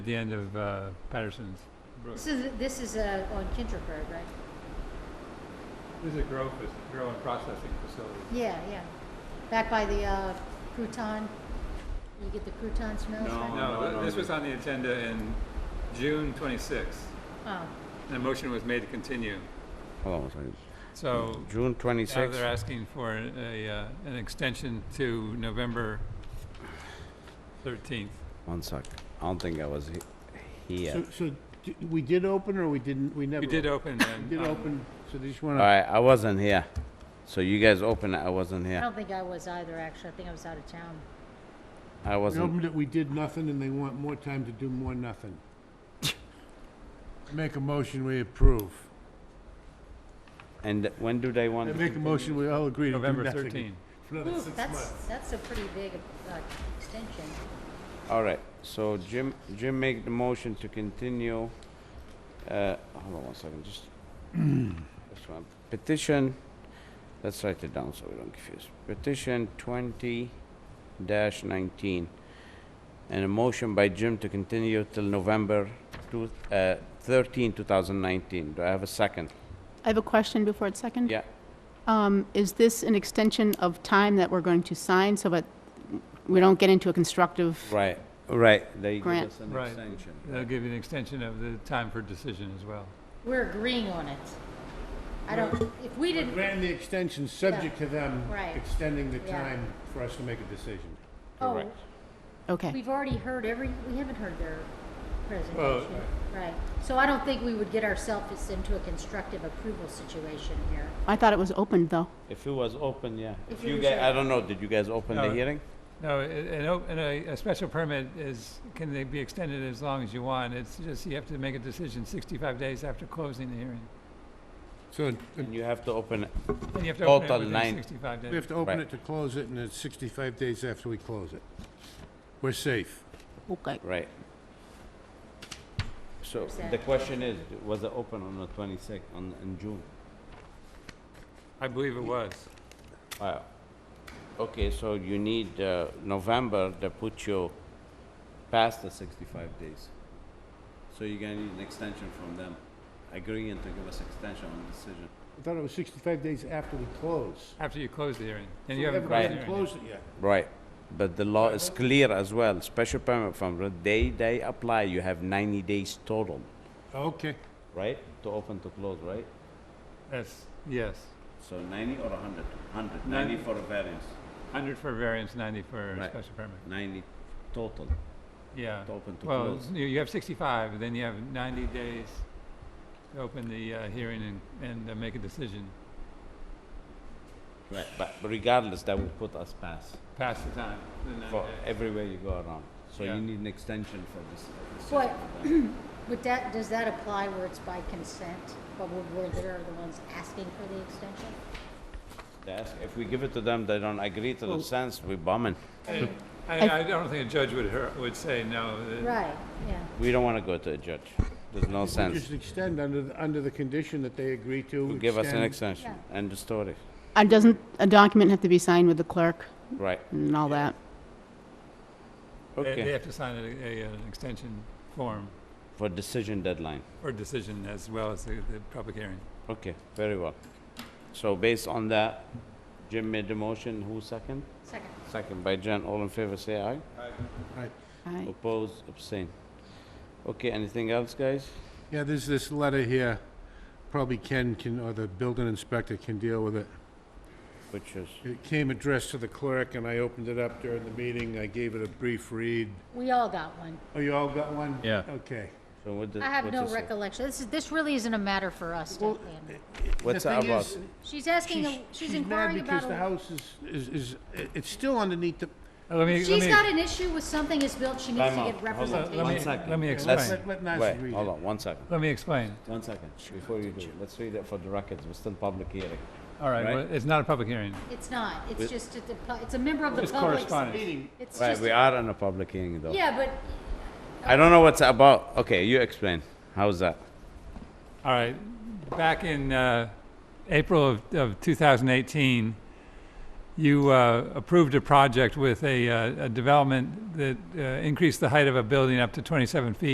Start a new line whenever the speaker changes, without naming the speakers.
at the end of uh, Patterson's Brook.
This is, this is uh, on Kinderberg, right?
This is a grow, fac- grow and processing facility.
Yeah, yeah. Back by the uh, crouton, you get the crouton smells,
No.
right?
No,
no,
th-
no,
this
no.
was on the agenda in June 26th,
Oh,
and a motion was made to continue.
Hold on a second.
So
June
now they're
26th,
asking for a, uh, an extension to November 13th.
one sec. I don't think I was he- here.
So, so d- we did open or we didn't, we never?
We did open
we
and.
Did
um,
open, so they just
All
wanna,
right, I wasn't here. So you guys opened it, I wasn't
I
here.
don't think I was either, actually. I think I was out of town.
I
they
wasn't,
opened it, we did nothing and they want more time to do more nothing. Make a motion, we approve.
and when do they
I
want?
make a motion, we all agree to do
November
nothing.
13th.
For another
Ooh,
six
that's,
months.
that's a pretty big uh, extension.
All right, so Jim, Jim make the motion to continue, uh, hold on one second, just, this one, petition, let's write it down so we don't confuse. Petition twenty dash nineteen, and a motion by Jim to continue till November two, uh, thirteen, two thousand nineteen. Do I have a second?
I have a question before it's second.
Yeah,
Um, Is this an extension of time that we're going to sign so that we don't get into a constructive?
right, right, they give
Grant.
us an
Right.
extension.
They'll give you an extension of the time for decision as well.
We're agreeing on it. I don't, if we
We
didn't,
Grant the extension, subject to them
Right.
extending the
Yeah.
time for us to make a decision.
oh,
Correct.
Okay.
we've already heard every, we haven't heard their presentation. Right. So I don't think we would get ourselves into a constructive approval situation here.
I thought it was opened, though.
If it was open, yeah. If
If it
you
was
guys, I
open.
don't know, did you guys open the
No.
hearing?
No, a- an, op- and a, a special permit is, can they be extended as long as you want? It's just, you have to make a decision 65 days after closing the hearing.
So
And you have to open it.
And you have to open
Total
it within
nine.
65
we
days.
have to open
Right.
it to close it and it's sixty-five days after we close it. We're safe.
Okay.
Right. So
Percent.
the question is, was it open on the twenty-sixth, on, in June?
I believe it was.
Wow. Okay, so you need, uh, November to put you past the sixty-five days. So you're gonna need an extension from them, agreeing to give us extension on decision.
I thought it was sixty-five days after we close.
After you close the hearing. And
We
you haven't
Right.
closed the hearing.
haven't
yet.
closed it yet.
Right, but the law is clear as well, special permit from the day they apply, you have ninety days total,
Okay.
right? To open to close, right?
That's, yes.
So ninety or a hundred? Hundred,
Ninety.
ninety for a variance,
100 for variance, 90 for
Right.
special permit.
ninety total.
Yeah.
To open to
Well,
close.
you you have 65, then you have 90 days to open the uh, hearing and, and uh, make a decision,
Right, but regardless, that would put us past
past the time, the 90
for
days.
everywhere you go around. So
Yeah.
you need an extension for this. this
What-
system.
Would that, does that apply where it's by consent, but where- where they're the ones asking for the extension?
They ask- If we give it to them, they don't agree to the sense, we bombing.
I, I don't think a judge would, hear- would say no. that-
Right, yeah.
We don't want to go to a judge. There's no sense.
Just extend under, the- under the condition that they agree to.
You Give us an
extend.
extension, end of story.
And Uh, doesn't a document have to be signed with the clerk
Right,
and all that?
They, they
okay.
have to sign a, a, an extension form
For decision deadline.
or decision as well as the, the public hearing.
Okay, very well. So based on that, Jim made the motion, who second?
Second.
Second by Jen, all in favor, say aye.
Aye.
Oppose, abstain. Okay, anything else, guys?
Yeah, there's this letter here, probably Ken can, or the building inspector can deal with it.
Which is,
It came addressed to the clerk, and I opened it up during the meeting, I gave it a brief read.
We all got one.
Oh, you all got one?
Yeah.
Okay.
so what does?
I have
what
no
does it-
recollection. This is, this really isn't a matter for us to
Well,
handle.
What's
The
that
thing
about?
is,
She's asking,
She's
a- she's
she's mad
inquiring
because
about,
the
a-
house is, is, is, it- it's still underneath the,
Uh, Let me,
she's got
let me,
an issue with something is built, she needs
Time
to
out.
get
Hold on. Let
representation.
me- second.
let me
Yeah,
explain.
Let, let Nancy
Wait,
read
hold
it.
on, one second,
let me explain.
one second, before you do, let's read it for the records, we're still public hearing.
All right,
Right.
well, it's not a public hearing.
It's not,
With-
it's just, a- the pu- it's a member of the
It's
public.
correspondence.
Meeting,
It's
Right,
just,
we are on a public hearing though.
yeah, but
I don't know what's about, okay, you explain, how's that?
All right, back in uh, April of, of 2018, you uh, approved a project with a, uh, a development that uh, increased the height of a building up to 27 feet